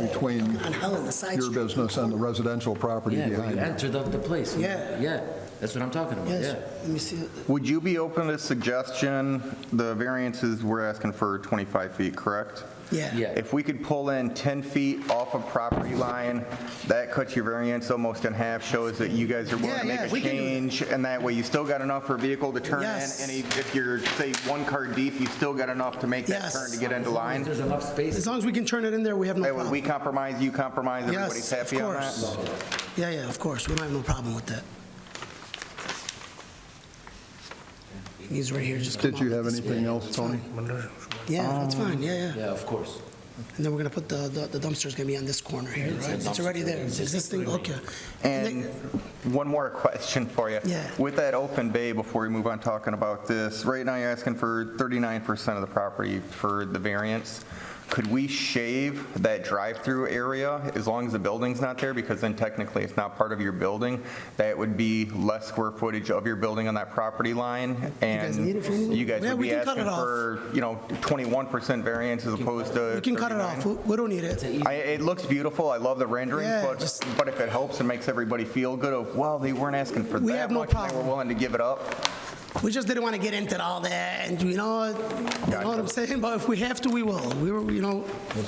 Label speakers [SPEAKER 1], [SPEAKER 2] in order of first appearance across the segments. [SPEAKER 1] between
[SPEAKER 2] on Helen, the side
[SPEAKER 1] your
[SPEAKER 2] street.
[SPEAKER 1] business and the residential property
[SPEAKER 3] Yeah, where
[SPEAKER 1] behind
[SPEAKER 3] you
[SPEAKER 1] it.
[SPEAKER 3] enter the, the place.
[SPEAKER 2] Yeah.
[SPEAKER 3] Yeah, that's what I'm talking about,
[SPEAKER 2] Yes,
[SPEAKER 3] yeah.
[SPEAKER 2] let me see. it.
[SPEAKER 4] Would you be open to suggestion, the variances, we're asking for 25 feet, correct?
[SPEAKER 2] Yeah.
[SPEAKER 3] Yeah,
[SPEAKER 4] If we could pull in 10 feet off a property line, that cuts your variance almost in half, shows that you guys are willing
[SPEAKER 2] Yeah,
[SPEAKER 4] to make
[SPEAKER 2] yeah,
[SPEAKER 4] a
[SPEAKER 2] we can do that.
[SPEAKER 4] change, and that way you still got enough for a vehicle to turn in.
[SPEAKER 2] Yes.
[SPEAKER 4] And if you're, say, one car deep, you still got enough to make that
[SPEAKER 2] Yes.
[SPEAKER 4] turn to get into line.
[SPEAKER 3] there's enough
[SPEAKER 2] As
[SPEAKER 3] space.
[SPEAKER 2] long as we can turn it in there, we have no
[SPEAKER 4] That way
[SPEAKER 2] problem.
[SPEAKER 4] we compromise, you compromise, everybody's
[SPEAKER 2] Yes, of
[SPEAKER 4] happy on that.
[SPEAKER 2] course. Yeah, yeah, of course, we don't have no problem with that. He's right here, just come
[SPEAKER 1] Did you
[SPEAKER 2] out
[SPEAKER 1] have
[SPEAKER 2] with this.
[SPEAKER 1] anything else, Tony?
[SPEAKER 2] Yeah, that's fine, yeah, yeah.
[SPEAKER 3] Um, Yeah, of course.
[SPEAKER 2] And then we're gonna put the, the- the dumpster's gonna be on this corner here,
[SPEAKER 3] It's a
[SPEAKER 2] right? It's already
[SPEAKER 3] dumpster.
[SPEAKER 2] there, it's existing, okay.
[SPEAKER 4] And one more question for you.
[SPEAKER 2] Yeah.
[SPEAKER 4] With that open bay, before we move on talking about this, right now you're asking for 39% of the property for the variance. Could we shave that drive-through area as long as the building's not there? Because then technically it's not part of your building. That would be less square footage of your building on that property line.
[SPEAKER 2] guys need it for anything?
[SPEAKER 4] And you guys
[SPEAKER 2] Yeah,
[SPEAKER 4] would
[SPEAKER 2] we
[SPEAKER 4] be
[SPEAKER 2] can cut
[SPEAKER 4] asking
[SPEAKER 2] it off.
[SPEAKER 4] for, you know, 21% variance as opposed to
[SPEAKER 2] We can cut it
[SPEAKER 4] 39.
[SPEAKER 2] off, we we don't need it.
[SPEAKER 4] I, it looks beautiful. I love the rendering,
[SPEAKER 2] Yeah,
[SPEAKER 4] but,
[SPEAKER 2] just-
[SPEAKER 4] but if it helps and makes everybody feel good of, well, they weren't asking for
[SPEAKER 2] We
[SPEAKER 4] that
[SPEAKER 2] have no
[SPEAKER 4] much, and they were
[SPEAKER 2] problem.
[SPEAKER 4] willing to give it up.
[SPEAKER 2] We just didn't want to get into all that, and you know, you know what I'm saying? But if we have to, we will. We were, you know,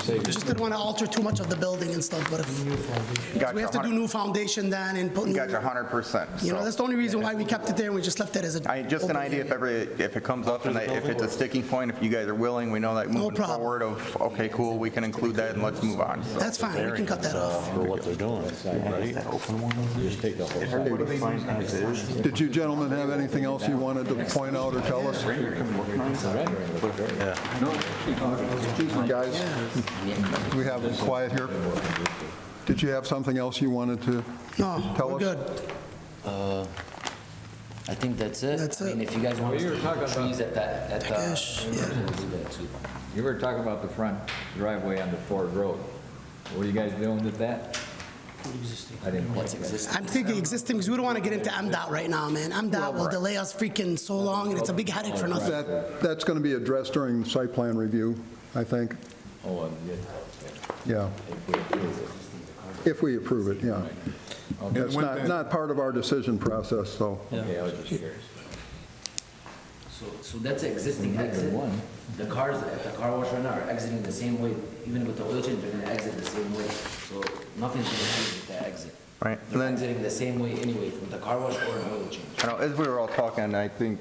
[SPEAKER 2] we just didn't want to alter too much of the building and stuff, but if,
[SPEAKER 4] Gotcha,
[SPEAKER 2] we have to do
[SPEAKER 4] 100
[SPEAKER 2] new foundation then and put new,
[SPEAKER 4] Got you 100%.
[SPEAKER 2] you know,
[SPEAKER 4] so.
[SPEAKER 2] that's the only reason why we kept it there, and we just left it as a.
[SPEAKER 4] I, just an
[SPEAKER 2] open
[SPEAKER 4] idea if
[SPEAKER 2] area.
[SPEAKER 4] ever, if it comes up and that- if it's a sticking point, if you guys are willing, we know that moving
[SPEAKER 2] problem.
[SPEAKER 4] forward of, okay, cool, we can include that and let's move on. so.
[SPEAKER 2] That's fine, we can cut that off.
[SPEAKER 5] For what they're doing, right? Just take the whole
[SPEAKER 1] Did you gentlemen have anything else you wanted to point out or tell us? Guys, we have it quiet here. Did you have something else you wanted to
[SPEAKER 2] No,
[SPEAKER 1] tell us?
[SPEAKER 2] we're good.
[SPEAKER 3] I think that's it.
[SPEAKER 2] That's
[SPEAKER 3] I mean,
[SPEAKER 2] it.
[SPEAKER 3] if you guys want
[SPEAKER 6] you
[SPEAKER 3] to
[SPEAKER 6] were
[SPEAKER 3] stick
[SPEAKER 6] talking about-
[SPEAKER 3] trees at that, at the.
[SPEAKER 2] Takesh,
[SPEAKER 3] end,
[SPEAKER 2] yeah.
[SPEAKER 3] we'll do that too.
[SPEAKER 6] You were talking about the front driveway on the Ford Road. What are you guys doing with that? I didn't quite
[SPEAKER 3] That's
[SPEAKER 6] get it.
[SPEAKER 3] existing.
[SPEAKER 2] I'm thinking existing, because we don't want to get into MDOT right now, man. MDOT will delay us freaking so long, and it's a big headache for nothing.
[SPEAKER 1] That, that's going to be addressed during the site plan review, I think.
[SPEAKER 6] Oh, um, yeah.
[SPEAKER 1] Yeah. If we approve it, yeah. That's not, not part of our decision process, so.
[SPEAKER 6] Okay, I was just curious.
[SPEAKER 3] So, so that's the existing exit. The cars at the car wash right now are exiting the same way, even with the oil change, they're gonna exit the same way. So nothing's gonna change with that exit.
[SPEAKER 4] Right, and
[SPEAKER 3] They're
[SPEAKER 4] then-
[SPEAKER 3] exiting the same way anyway, from the car wash or an oil change.
[SPEAKER 4] I know, as we were all talking, I think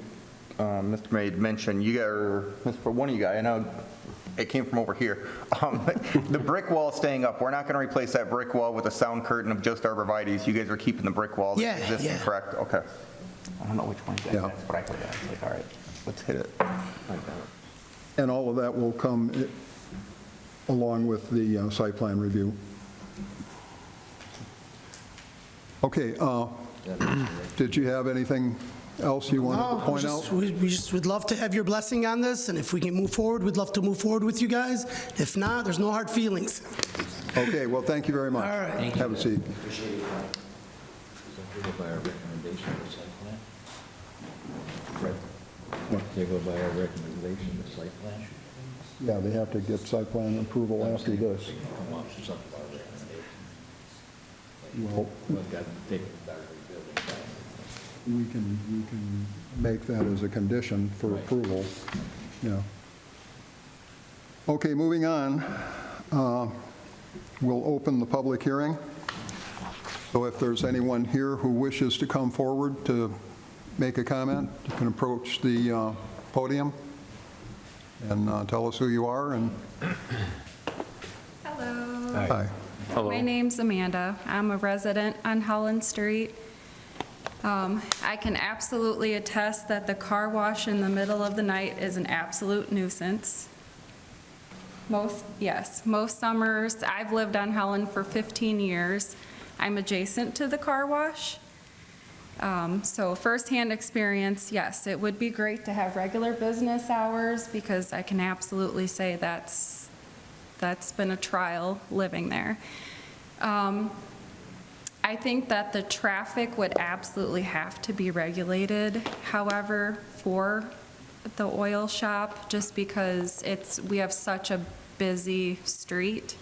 [SPEAKER 4] um, Mr. May had mentioned, you got, or Mr. one of you guys, I know it came from over here. Um, The brick wall staying up, we're not going to replace that brick wall with a sound curtain of just arborvitae's. You guys are keeping the brick wall
[SPEAKER 2] Yeah,
[SPEAKER 4] that's existing,
[SPEAKER 2] yeah.
[SPEAKER 4] correct? Okay. I don't know which one
[SPEAKER 1] Yeah.
[SPEAKER 4] that is, but I heard that. Like, all right, let's hit it.
[SPEAKER 1] And all of that will come i- along with the uh, site plan review. Okay, uh, did you have anything else you wanted
[SPEAKER 2] No,
[SPEAKER 1] to
[SPEAKER 2] we
[SPEAKER 1] point
[SPEAKER 2] just-
[SPEAKER 1] out?
[SPEAKER 2] We we just would love to have your blessing on this, and if we can move forward, we'd love to move forward with you guys. If not, there's no hard feelings.
[SPEAKER 1] Okay, well, thank you very much.
[SPEAKER 2] All right. Thank
[SPEAKER 1] Have a seat.
[SPEAKER 6] They go by our recommendation of the site plan? Right. They go by our recommendation of the site plan?
[SPEAKER 1] Yeah, they have to get site plan approval after this.
[SPEAKER 6] Come up with something about recommendation.
[SPEAKER 1] Well,
[SPEAKER 6] We've got to take the building down.
[SPEAKER 1] we can, we can make that as a condition for
[SPEAKER 6] Right.
[SPEAKER 1] approval, yeah. Okay, moving on, Uh, we'll open the public hearing. So if there's anyone here who wishes to come forward to make a comment, you can approach the uh, podium and uh, tell us who you are and,
[SPEAKER 7] Hello.
[SPEAKER 1] hi.
[SPEAKER 7] My name's Amanda. I'm a resident on Holland Street. Um, I can absolutely attest that the car wash in the middle of the night is an absolute nuisance. Most, yes, most summers, I've lived on Holland for 15 years. I'm adjacent to the car wash. Um, So firsthand experience, yes, it would be great to have regular business hours because I can absolutely say that's, that's been a trial living there. Um, I think that the traffic would absolutely have to be regulated, however, for the oil shop, just because it's, we have such a busy street.